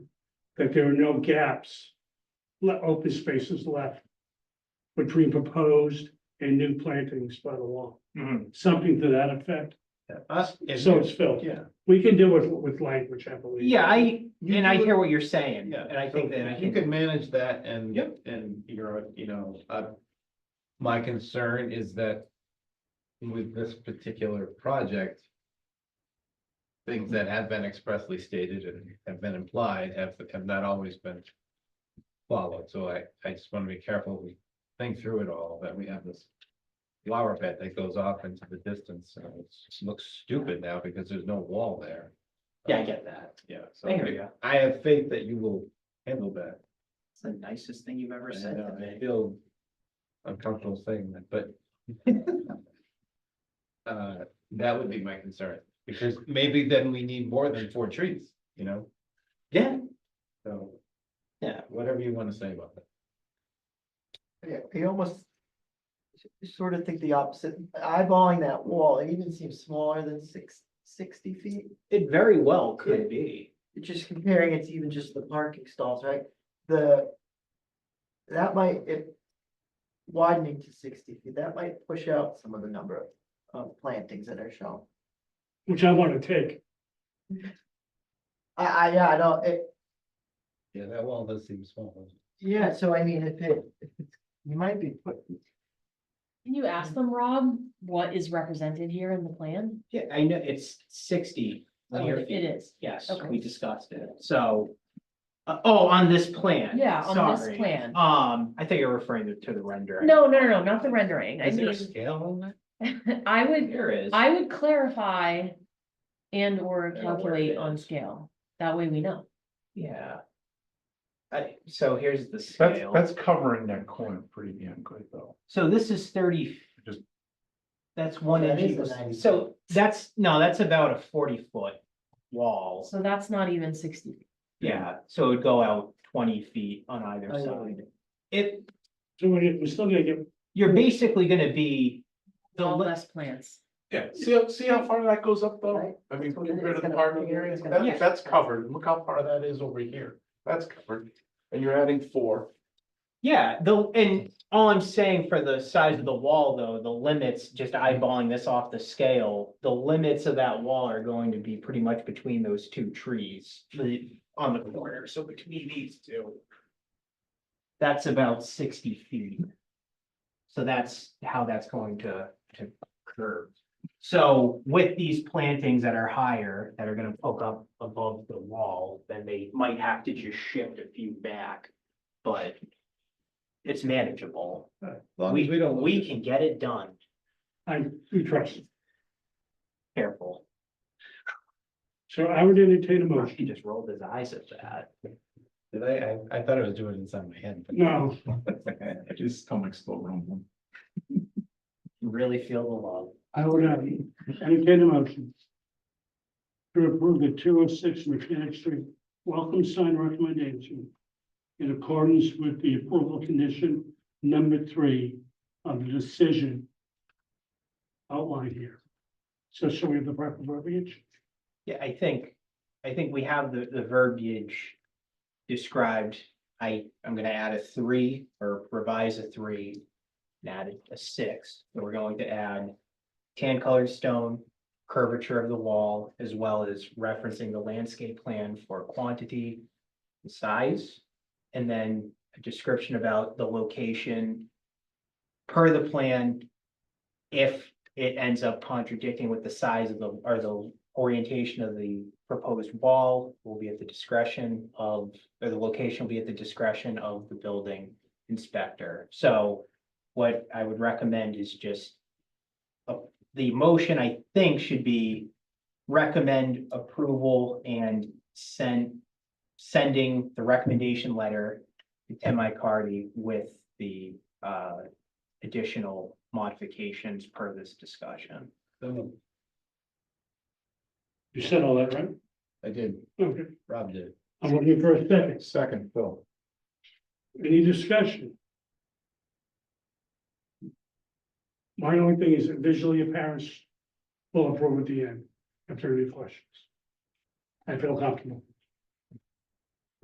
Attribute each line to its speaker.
Speaker 1: that there are no gaps, le- open spaces left between proposed and new plantings by the law, something to that effect.
Speaker 2: Us,
Speaker 1: So it's filled.
Speaker 3: Yeah.
Speaker 1: We can do it with language, I believe.
Speaker 4: Yeah, I,
Speaker 2: You
Speaker 4: and I
Speaker 2: do it-
Speaker 4: hear what you're saying,
Speaker 2: Yeah,
Speaker 4: and I think that I
Speaker 2: You
Speaker 4: can,
Speaker 2: could manage that and.
Speaker 3: Yep.
Speaker 2: And you're, you know, uh, my concern is that with this particular project, things that have been expressly stated and have been implied have, have not always been followed. So I, I just want to be careful. We think through it all, that we have this flower bed that goes off into the distance. and It looks stupid now because there's no wall there.
Speaker 4: yeah, I get that.
Speaker 2: Yeah. So
Speaker 4: I hear you.
Speaker 2: I have faith that you will handle that.
Speaker 4: It's the nicest thing you've ever said
Speaker 2: And,
Speaker 4: to
Speaker 2: uh, I
Speaker 4: me.
Speaker 2: feel uncomfortable saying that, but. Uh, that would be my concern, because maybe then we need more than four trees, you know,
Speaker 4: Yeah,
Speaker 2: so.
Speaker 4: Yeah.
Speaker 2: Whatever you wanna say about that.
Speaker 3: Yeah, you almost sort of think the opposite, eyeballing that wall, it even seems smaller than six, sixty feet.
Speaker 4: it very well could be.
Speaker 3: Just comparing it to even just the parking stalls, right? The, that might, if widening to sixty feet, that might push out some of the number of, of plantings that are shown.
Speaker 1: Which I want to take.
Speaker 3: I, I, yeah, I don't, it,
Speaker 2: Yeah, that wall does seem small.
Speaker 3: yeah, so I mean, if it, if it's- you might be put,
Speaker 5: Can you ask them, Rob, what is represented here in the plan?
Speaker 4: Yeah, I know, it's sixty linear
Speaker 5: Oh, It
Speaker 4: feet,
Speaker 5: is,
Speaker 4: yes,
Speaker 5: okay.
Speaker 4: we discussed it, so. uh, oh, on this plan.
Speaker 5: yeah, on this
Speaker 4: sorry.
Speaker 5: plan.
Speaker 4: Um, I think you're referring to, to the rendering.
Speaker 5: No, no, no, no, not the rendering. I
Speaker 2: Is there a
Speaker 5: mean,
Speaker 2: scale on that?
Speaker 5: I would,
Speaker 4: There is.
Speaker 5: I would clarify and or
Speaker 4: it
Speaker 5: calculate on
Speaker 4: is.
Speaker 5: scale. That way we know.
Speaker 4: Yeah. I, so here's the
Speaker 6: That's,
Speaker 4: scale.
Speaker 6: that's covering that corner pretty damn good though.
Speaker 4: So this is thirty.
Speaker 6: Just-
Speaker 4: That's one
Speaker 3: That
Speaker 4: inch.
Speaker 3: is the
Speaker 4: equals-
Speaker 3: 90.
Speaker 4: So that's, no, that's about a forty foot wall.
Speaker 5: So that's not even sixty.
Speaker 4: Yeah, so it would go out twenty feet on either
Speaker 3: Oh, yeah.
Speaker 4: side. It,
Speaker 1: So we- we're still gonna get,
Speaker 4: you're basically gonna be, The
Speaker 5: All
Speaker 4: le-
Speaker 5: less plants.
Speaker 6: Yeah, see, how- see how far that goes up
Speaker 3: Right.
Speaker 6: though? I mean,
Speaker 3: That's what it
Speaker 6: get rid of
Speaker 3: is.
Speaker 6: the
Speaker 3: It's gonna-
Speaker 6: parking area,
Speaker 3: it's gonna-
Speaker 4: Yeah.
Speaker 6: that, that's covered, look how far that is over here, that's covered, and you're adding four.
Speaker 4: yeah, the, and all I'm saying for the size of the wall, though, the limits, just eyeballing this off the scale. The limits of that wall are going to be pretty much between those two trees, the, on the corner, so between these two. That's about sixty feet. So that's how that's going to, to curve. So with these plantings that are higher, that are gonna poke up above the wall, then they might have to just shift a few back, but it's manageable.
Speaker 2: As long as
Speaker 4: We,
Speaker 2: we don't. lose
Speaker 4: we
Speaker 2: it.
Speaker 4: can get it done,
Speaker 1: I, we trust.
Speaker 4: careful.
Speaker 1: So I would entertain a
Speaker 4: He
Speaker 1: motion.
Speaker 4: just rolled his eyes at that.
Speaker 2: Did I, I, I thought I was doing it inside my head. but-
Speaker 1: No,
Speaker 6: I just stomach's still rumbling.
Speaker 4: You Really feel the love.
Speaker 1: I would uh, entertain a motion. To approve the two oh six Mechanic Street welcome sign recommendation. In accordance with the approval condition number three of the decision. Outlined here. So shall we have the proper verbiage?
Speaker 4: Yeah, I think, I think we have the, the verbiage described. I, I'm gonna add a three or revise a three. And add a six, so we're going to add tan colored stone, curvature of the wall, as well as referencing the landscape plan for quantity. and Size, and then a description about the location. Per the plan, if it ends up contradicting with the size of the, or the orientation of the proposed wall will be at the discretion of, or the location will be at the discretion of the building inspector. So what I would recommend is just uh, the motion, I think, should be recommend approval and send sending the recommendation letter to Tim Icardi with the uh additional modifications per this discussion.
Speaker 2: So,
Speaker 1: You said all that, right?
Speaker 2: I did,
Speaker 1: Okay,
Speaker 2: Rob did.
Speaker 1: I'm looking for a second.
Speaker 2: Second, Phil.
Speaker 1: Any discussion? My only thing is that visually apparent will approve at the end, if there are any questions. I feel comfortable.